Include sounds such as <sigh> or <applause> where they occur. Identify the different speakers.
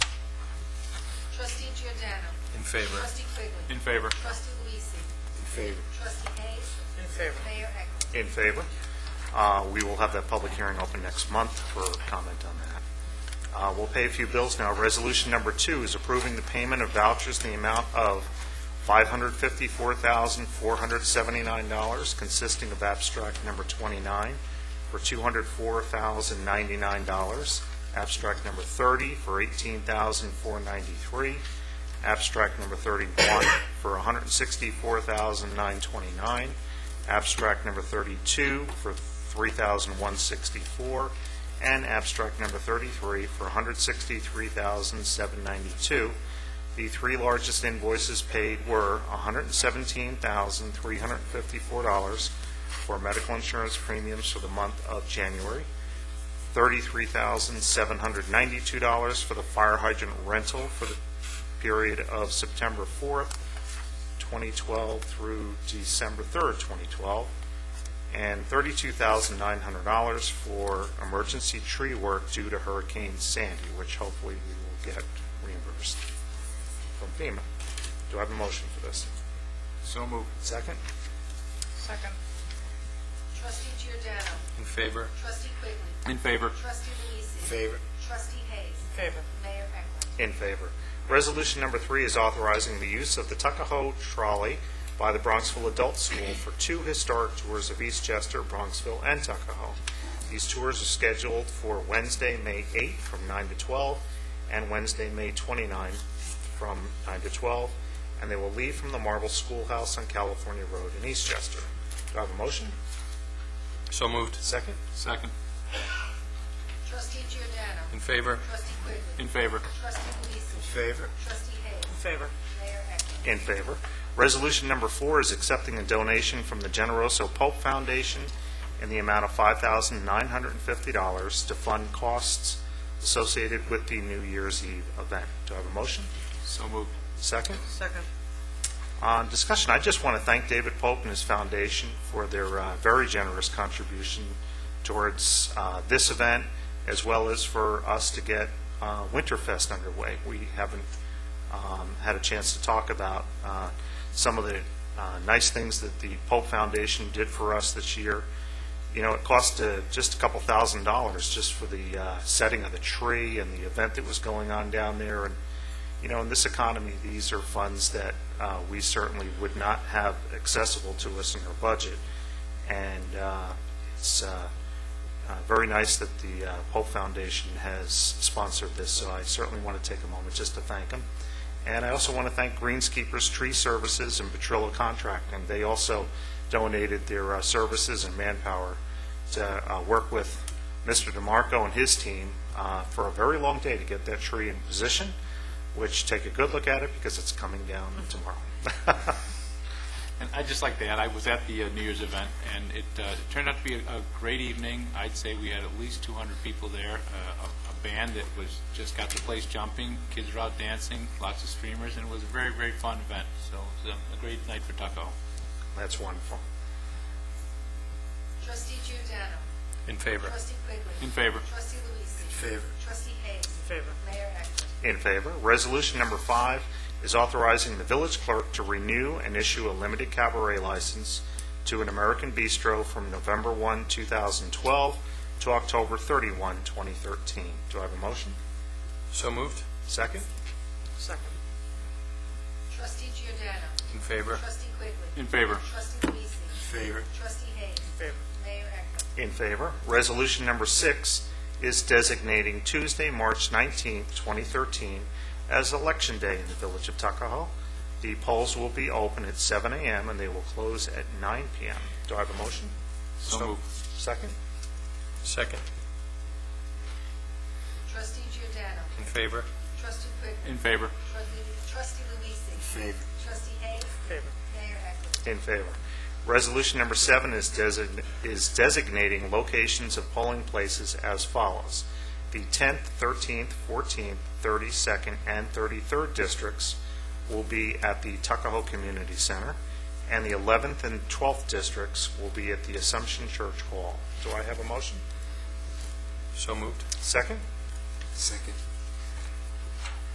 Speaker 1: In favor.
Speaker 2: Trustee Quigley.
Speaker 3: In favor.
Speaker 2: Trustee Luise.
Speaker 4: In favor.
Speaker 2: Trustee Hayes.
Speaker 5: In favor.
Speaker 2: Mayor Eklund.
Speaker 6: In favor. Uh, We will have that public hearing open next month for comment on that. Uh, We'll pay a few bills now. Resolution number two is approving the payment of vouchers in the amount of $554,479, consisting of abstract number 29 for $204,099, abstract number 30 for $18,493, abstract number 31 for $164,929, abstract number 32 for $3,164, and abstract number 33 for $163,792. The three largest invoices paid were $117,354 for medical insurance premiums for the month of January, $33,792 for the fire hydrant rental for the period of September 4th, 2012 through December 3rd, 2012, and $32,900 for emergency tree work due to Hurricane Sandy, which hopefully we will get reimbursed from FEMA. Do I have a motion for this?
Speaker 3: So moved.
Speaker 6: Second?
Speaker 5: Second.
Speaker 2: Trustee Giordano.
Speaker 1: In favor.
Speaker 2: Trustee Quigley.
Speaker 3: In favor.
Speaker 2: Trustee Luise.
Speaker 4: Favor.
Speaker 2: Trustee Hayes.
Speaker 5: Favor.
Speaker 2: Mayor Eklund.
Speaker 6: In favor. Resolution number three is authorizing the use of the Tuckahoe Trolley by the Bronxville Adult School for two historic tours of Eastchester, Bronxville, and Tuckahoe. These tours are scheduled for Wednesday, May 8th from 9 to 12, and Wednesday, May 29th from 9 to 12, and they will leave from the Marble Schoolhouse on California Road in Eastchester. Do I have a motion?
Speaker 1: So moved.
Speaker 6: Second?
Speaker 3: Second.
Speaker 2: Trustee Giordano.
Speaker 1: In favor.
Speaker 2: Trustee Quigley.
Speaker 3: In favor.
Speaker 2: Trustee Luise.
Speaker 4: Favor.
Speaker 2: Trustee Hayes.
Speaker 5: Favor.
Speaker 2: Mayor Eklund.
Speaker 6: In favor. Resolution number four is accepting a donation from the Generoso Pope Foundation in the amount of $5,950 to fund costs associated with the New Year's Eve event. Do I have a motion?
Speaker 3: So moved.
Speaker 6: Second?
Speaker 5: Second.
Speaker 6: Uh, discussion, I just want to thank David Pope and his foundation for their uh, very generous contribution towards uh, this event, as well as for us to get uh, Winterfest underway. We haven't um, had a chance to talk about uh, some of the uh, nice things that the Pope Foundation did for us this year. You know, it cost uh, just a couple thousand dollars just for the uh, setting of the tree and the event that was going on down there, and you know, in this economy, these are funds that uh, we certainly would not have accessible to us in our budget. And uh, it's uh, uh, very nice that the uh, Pope Foundation has sponsored this, so I certainly want to take a moment just to thank them. And I also want to thank Greenskeepers Tree Services and Petrillo Contracting. They also donated their uh, services and manpower to uh, work with Mr. DeMarco and his team uh, for a very long day to get that tree in position which take a good look at it because it's coming down tomorrow. <laughs>
Speaker 3: And I'd just like to add, I was at the uh, New Year's event, and it uh, it turned out to be a a great evening. I'd say we had at least 200 people there, uh, a a band that was, just got the place jumping, kids were out dancing, lots of streamers, and it was a very, very fun event. So it was a- a great night for Tuckahoe.
Speaker 6: That's wonderful.
Speaker 2: Trustee Giordano.
Speaker 1: In favor.
Speaker 2: Trustee Quigley.
Speaker 3: In favor.
Speaker 2: Trustee Luise.
Speaker 4: Favor.
Speaker 2: Trustee Hayes.
Speaker 5: Favor.
Speaker 2: Mayor Eklund.
Speaker 6: In favor. Resolution number five is authorizing the village clerk to renew and issue a limited cabaret license to an American Bistro from November 1, 2012 to October 31, 2013. Do I have a motion?
Speaker 1: So moved.
Speaker 6: Second?
Speaker 5: Second.
Speaker 2: Trustee Giordano.
Speaker 1: In favor.
Speaker 2: Trustee Quigley.
Speaker 3: In favor.
Speaker 2: Trustee Luise.
Speaker 4: Favor.
Speaker 2: Trustee Hayes.
Speaker 5: Favor.
Speaker 2: Mayor Eklund.
Speaker 6: In favor. Resolution number six is designating Tuesday, March 19, 2013, as Election Day in the Village of Tuckahoe. The polls will be open at 7 a.m. and they will close at 9 p.m. Do I have a motion?
Speaker 3: So moved.
Speaker 6: Second?
Speaker 1: Second.
Speaker 2: Trustee Giordano.
Speaker 1: In favor.
Speaker 2: Trustee Quigley.
Speaker 3: In favor.
Speaker 2: Trustee- Trustee Luise.
Speaker 4: Favor.
Speaker 2: Trustee Hayes.
Speaker 5: Favor.
Speaker 2: Mayor Eklund.
Speaker 6: In favor. Resolution number seven is design- is designating locations of polling places as follows. The 10th, 13th, 14th, 32nd, and 33rd districts will be at the Tuckahoe Community Center, and the 11th and 12th districts will be at the Assumption Church Hall. Do I have a motion?
Speaker 1: So moved.
Speaker 6: Second?
Speaker 4: Second.